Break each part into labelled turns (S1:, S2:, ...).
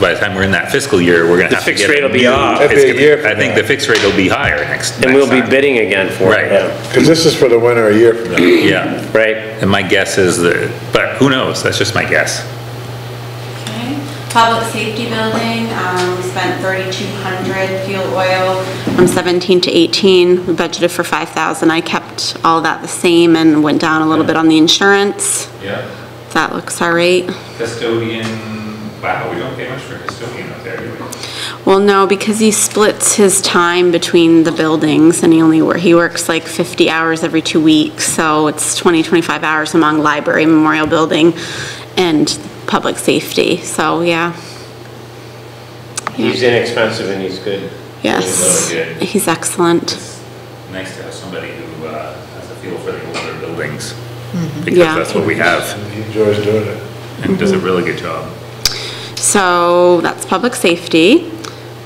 S1: by the time we're in that fiscal year, we're gonna
S2: The
S1: have to
S2: fixed
S1: get. a
S2: rate will be
S1: new-
S2: off.
S1: it's
S3: That'd be a
S1: gonna-
S3: year from
S1: I think
S3: now.
S1: the fixed rate will be higher next.
S2: And we'll be
S1: next time.
S2: bidding again for
S1: Right.
S2: it, yeah,
S3: Because this is for the winter a year from now.
S1: Yeah,
S2: right?
S1: and my guess is that, but who knows, that's just my guess.
S4: Okay. Public safety building, um, we spent 3,200 fuel oil. From 17 to 18, we budgeted for 5,000. I kept all that the same and went down a little bit on the insurance.
S1: Yeah,
S4: That looks all right.
S1: custodian, wow, we don't pay much for custodian out there, do we?
S4: Well, no, because he splits his time between the buildings and he only, wor- he works like 50 hours every two weeks. So it's 20, 25 hours among library, memorial building, and public safety. So, yeah.
S2: He's inexpensive and he's good.
S4: Yes,
S1: Really good.
S4: he's excellent.
S1: It's nice to have somebody who uh, has a feel for the older buildings,
S4: Yeah.
S2: Mm-hmm.
S1: because that's what we have,
S3: He enjoys doing it.
S1: and does a
S2: Mm-hmm.
S1: really good job.
S4: So that's public safety.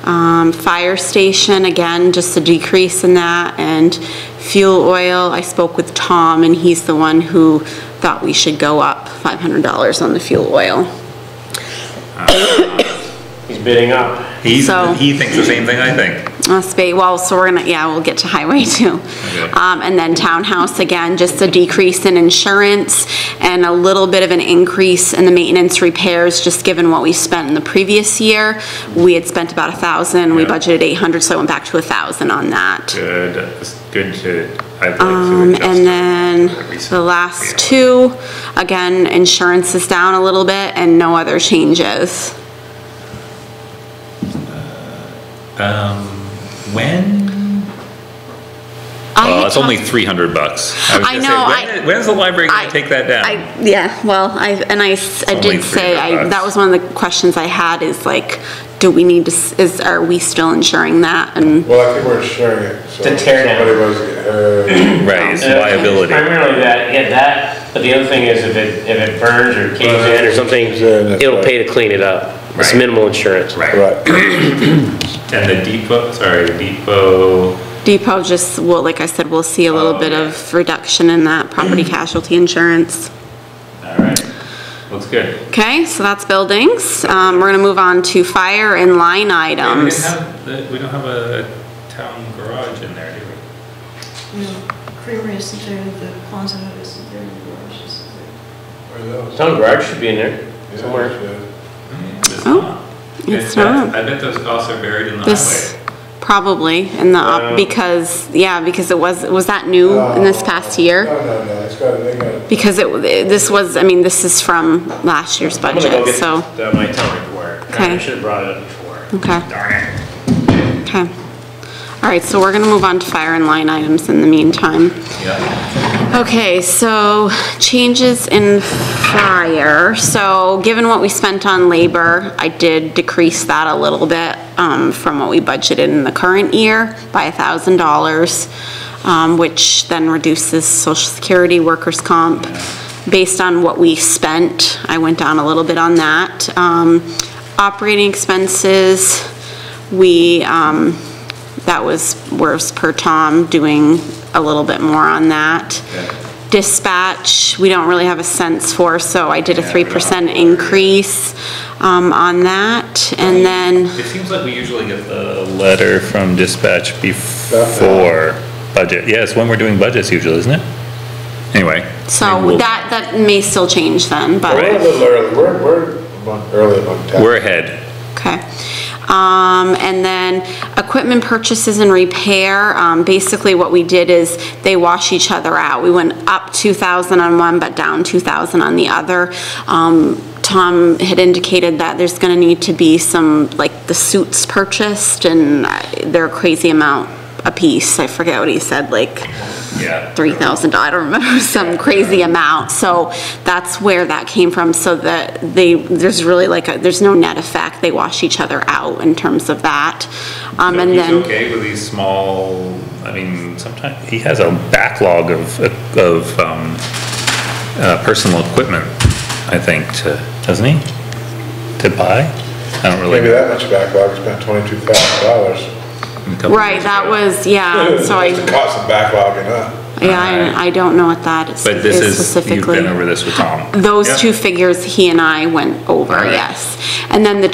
S4: Um, fire station, again, just a decrease in that, and fuel oil, I spoke with Tom, and he's the one who thought we should go up $500 on the fuel oil.
S2: He's bidding up.
S1: He's,
S4: So-
S1: he thinks the same thing I think.
S4: Must be, Uh, well, so we're gonna, yeah, we'll get to highway too.
S1: Okay.
S4: Um, and then townhouse, again, just a decrease in insurance and a little bit of an increase in the maintenance repairs, just given what we spent in the previous year. We had spent about a thousand, we
S1: Yeah.
S4: budgeted eight hundred, so I went back to a thousand on that.
S1: Good, it's good to, I'd like
S4: Um,
S1: to adjust.
S4: and then
S1: Recent.
S4: the last two, again, insurance is down a little bit and no other changes.
S1: Um, when?
S4: I
S1: Oh,
S4: had
S1: it's only
S4: talked-
S1: three hundred bucks. was
S4: I
S1: gonna say,
S4: know,
S1: when-
S4: I-
S1: When's the library
S4: I-
S1: gonna take that down?
S4: I, yeah, well, I, and I, s- I
S1: only
S4: did say, I,
S1: 300
S4: that was one of the questions I had is like, do we need to, s- is, are we still insuring that? And,
S3: Well, I think we're sharing it, so
S2: The
S3: if
S2: tear down.
S3: somebody was, uh,
S1: Right, it's
S2: Uh,
S1: liability.
S2: Primarily that, yeah, that, but the other thing is if it, if it burns or caves in or something,
S3: Caves in, that's
S2: it'll
S3: right.
S2: pay to clean it up. It's
S1: Right.
S2: minimal insurance.
S1: Right,
S3: right,
S1: and the depot, sorry, depot,
S4: Depot just, well, like I said, we'll see a little
S1: Oh,
S4: bit
S1: yeah.
S4: of reduction in that property casualty insurance.
S1: all right, looks good.
S4: Okay, so that's buildings. Um, we're gonna move on to fire and
S1: We
S4: line
S1: didn't
S4: items.
S1: have, the- we don't have a town garage in there, do we?
S5: No, creamery isn't there, the Quonset isn't there, the garage isn't there.
S2: Town garage should be in there somewhere.
S1: It's
S4: Oh,
S1: not.
S4: it's
S1: that's-
S4: not.
S1: I bet those costs are buried in the
S4: This,
S1: highway. Uh,
S4: probably, in the,
S2: Yeah.
S4: op- because, yeah, because it was, was that new in this past year?
S3: No, no, no, it's got, they got it.
S4: Because it, this was, I mean, this is from last year's
S2: I'm gonna go
S4: budget,
S2: get
S4: so,
S2: the- my town report. I
S4: Okay.
S2: should have brought it up before.
S4: okay,
S1: Darn it.
S4: okay. All right, so we're gonna move on to fire and line items in the meantime.
S1: Yeah,
S4: Okay, so changes in fire. So given what we spent on labor, I did decrease that a little bit um, from what we budgeted in the current year by $1,000, um, which then reduces social security, workers' comp. Based on what we spent, I went down a little bit on that. Um, Operating expenses, we, um, that was worse per Tom, doing a little bit more on that. Dispatch, we don't really have a sense for, so I did a
S1: Yeah, we
S4: three
S1: don't.
S4: percent increase, um, on that, and then,
S1: it seems like we usually get the letter from dispatch before budget. Yeah, it's when we're doing budgets usually, isn't it? Anyway. maybe
S4: so
S1: we'll-
S4: that, that may still change then, but.
S3: We're a little early, we're, we're a month early on time.
S1: We're ahead.
S4: Okay. Um, and then equipment purchases and repair, um, basically what we did is they wash each other out. We went up two thousand on one, but down two thousand on the other. Um, Tom had indicated that there's gonna need to be some, like, the suits purchased and uh, they're a crazy amount a piece. I forget what he said, like,
S1: Yeah.
S4: three thousand, I don't remember, some crazy amount, so that's where that came from, so that they, there's really like, a- there's no net effect, they wash each other out in terms of that. Um,
S1: So
S4: and
S1: he's
S4: then,
S1: okay with these small, I mean, sometimes, he has a backlog of, of, um, uh, personal equipment, I think, to, doesn't he? To buy? I don't really.
S3: Maybe that much backlog, we spent twenty-two thousand dollars.
S1: a couple
S4: right,
S1: years
S4: that
S1: ago.
S4: was, yeah, so I,
S3: It's the cost of backlogging, huh?
S4: yeah, I I don't know what that is
S1: But this
S4: is
S1: is, you've been
S4: specifically.
S1: over this with Tom.
S4: Those
S1: Yeah.
S4: two figures he and I went over,
S1: Alright.
S4: yes. And then the